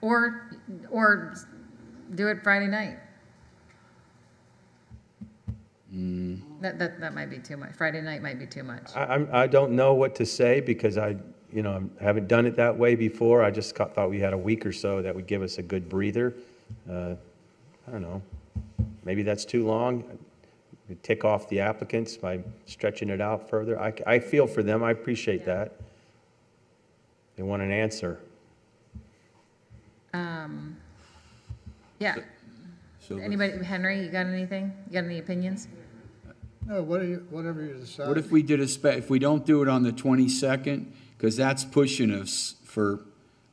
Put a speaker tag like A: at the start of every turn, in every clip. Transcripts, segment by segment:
A: Or, or do it Friday night. That, that, that might be too much. Friday night might be too much.
B: I, I'm, I don't know what to say because I, you know, I haven't done it that way before. I just got- thought we had a week or so that would give us a good breather. Uh, I don't know. Maybe that's too long. We Tick off the applicants by stretching it out further. I, c- I feel for them. I appreciate that. They want an answer.
A: Yeah.
C: So the-
A: Anybody, Henry, you got anything? You got any opinions?
D: No, what do you- whatever you decide.
C: What if we did a spe, if we don't do it on the twenty-second, because that's pushing us for,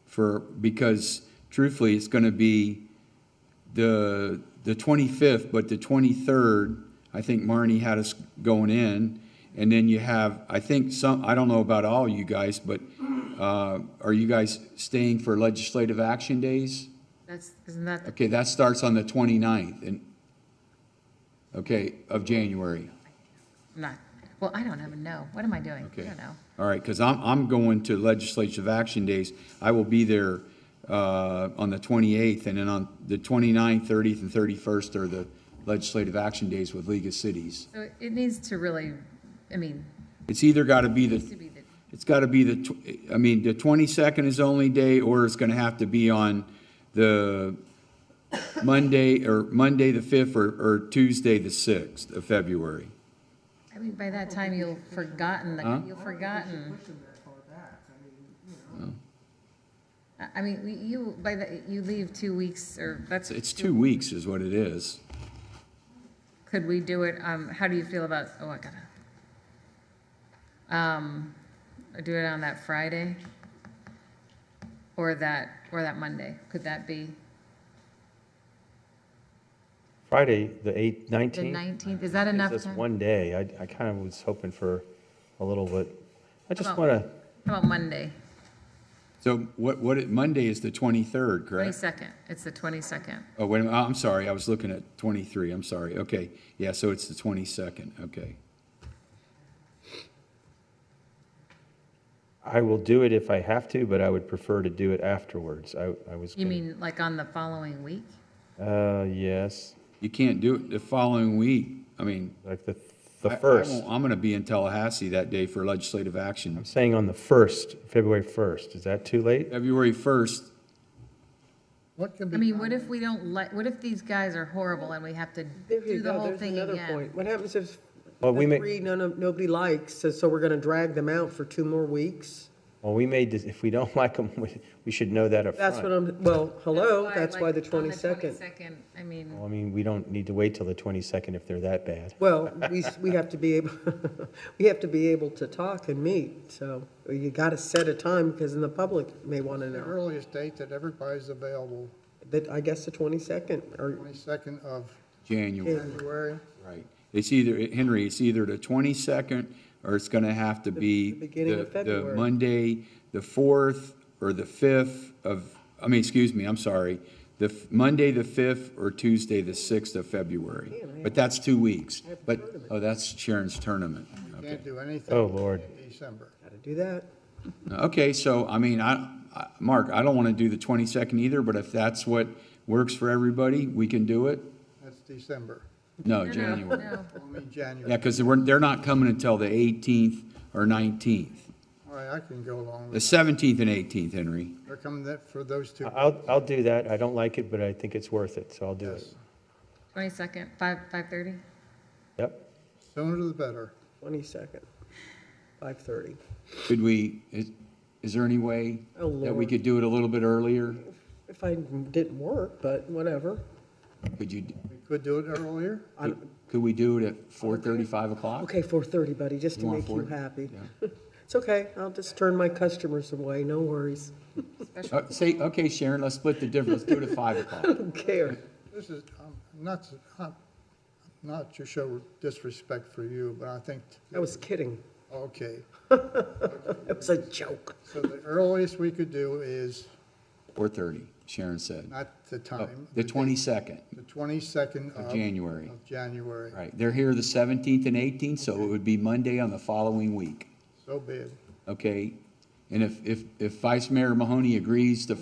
C: for, because truthfully, it's gonna be the, the twenty-fifth, but the twenty-third, I think Marnie had us going in, and then you have, I think some, I don't know about all you guys, but, uh, are you guys staying for legislative action days?
A: That's, isn't that, the-
C: Okay, that starts on the 29th and, okay, of January.
A: I'm not, well, I don't even know. What am I doing? I
C: Okay.
A: don't know.
C: All right, because I'm, I'm going to Legislative Action Days. I will be there uh, on the 28th, and then on the 29th, 30th, and 31st are the Legislative Action Days with League of Cities.
A: So it needs to really, I mean,
C: It's either got to be
A: to
C: the,
A: be the,
C: it's got to be the, tw- I mean, the 22nd is only day, or it's going to have to be on the Monday, or Monday the 5th, or, or Tuesday the 6th of February.
A: I mean, by that time you'll forgotten,
C: Huh?
A: the you'll forgotten. I- I mean, we- you, by the, you leave two weeks or that's,
C: It's two weeks is what it is.
A: could we do it, um, how do you feel about, oh, I gotta. Um, do it on that Friday? Or that, or that Monday? Could that be
B: Friday, the 8th,
A: the
B: 19th?
A: nineteenth? Is that
B: It's
A: enough
B: just
A: time? How
B: one day. I, I kind of was hoping for a little bit. I just
A: about-
B: want to,
A: about Monday,
C: So what, what, it- Monday is the 23rd, correct?
A: twenty-second? It's the twenty-second.
C: Oh, wait, a minute. I'm sorry, I was looking at 23, I'm sorry, okay. Yeah, so it's the 22nd, okay.
B: I will do it if I have to, but I would prefer to do it afterwards. I, I was.
A: You
B: gonna-
A: mean like on the following week?
B: Uh, yes,
C: You can't do it the following week, I mean.
B: like the,
C: I-
B: the
C: I
B: first.
C: won't- I'm going to be in Tallahassee that day for legislative action.
B: I'm saying on the first, February first. Is that too late?
C: February 1st,
D: What can be.
A: I mean, what if we don't let, what if these guys are horrible and we have to
E: There you
A: do the
E: go.
A: whole
E: There's
A: thing
E: another
A: again?
E: point. What happens if
B: Well, we
E: the
B: may-
E: three none of, nobody likes, so, so we're gonna drag them out for two more weeks?
B: Well, we may, dis- if we don't like them, we, we should know that up
E: That's what
B: front.
E: I'm, well, hello, that's why the
A: like, on
E: twenty-second.
A: 22nd, I mean,
B: Well, I mean, we don't need to wait till the twenty-second if they're that bad.
E: Well, we, s- we have to be able, we have to be able to talk and meet, so you gotta set a time, because then the public may wanna
D: The
E: know.
D: earliest date that everybody's available,
E: But I guess the twenty-second, or,
D: 22nd of
C: January,
D: February.
C: right. It's either, Henry, it's either the 22nd, or it's going to have to be.
E: the beginning
C: the-
E: of February.
C: The Monday, the 4th, or the 5th of, I mean, excuse me, I'm sorry, the f- Monday, the 5th, or Tuesday, the 6th of February. But that's two weeks. But, oh, that's Sharon's tournament.
D: You
C: Okay.
D: can't do anything.
B: Oh, Lord.
D: in December.
E: gotta do that.
C: Okay, so, I mean, I, I- Mark, I don't want to do the 22nd either, but if that's what works for everybody, we can do it.
D: That's December.
C: No,
A: no,
C: January.
A: no.
D: I mean,
C: Yeah,
D: January.
C: because they're, they're not coming until the 18th or 19th.
D: All right, I can go along
C: The
D: with
C: 17th and 18th, Henry.
D: They're coming that for those two.
B: I'll, I'll do that. I don't like it, but I think it's worth it, so I'll do it.
D: Yes.
A: 22nd, 5, 5:30?
B: Yep.
D: Sooner the better.
E: Twenty-second, five-thirty.
C: Could we, is, is there any way
E: Oh,
C: that we
E: Lord.
C: could do it a little bit earlier?
E: If I didn't work, but whatever.
C: Could you,
D: We could do it earlier.
E: I-
C: could we do it at four thirty, five o'clock?
E: Okay, four-thirty, buddy, just to
C: You want
E: make you
C: 40?
E: happy. It's okay, I'll just turn my customers away, no worries.
C: Uh, Say, okay, Sharon, let's split the difference, let's do it at five o'clock.
E: Don't care.
D: This is, I'm not, s- I'm not to show disrespect for you, but I think,
E: I was kidding.
D: okay.
E: It was a joke.
D: So the earliest we could do is
C: Four thirty, Sharon said.
D: not the
C: Oh,
D: time.
C: The
D: date,
C: twenty-second
D: The 22nd
C: of
D: of.
C: January,
D: Of January.
C: right. They're here the seventeenth and eighteenth, so it would be Monday on the following week,
D: So be it.
C: okay? And if, if, if Vice Mayor Mahoney agrees to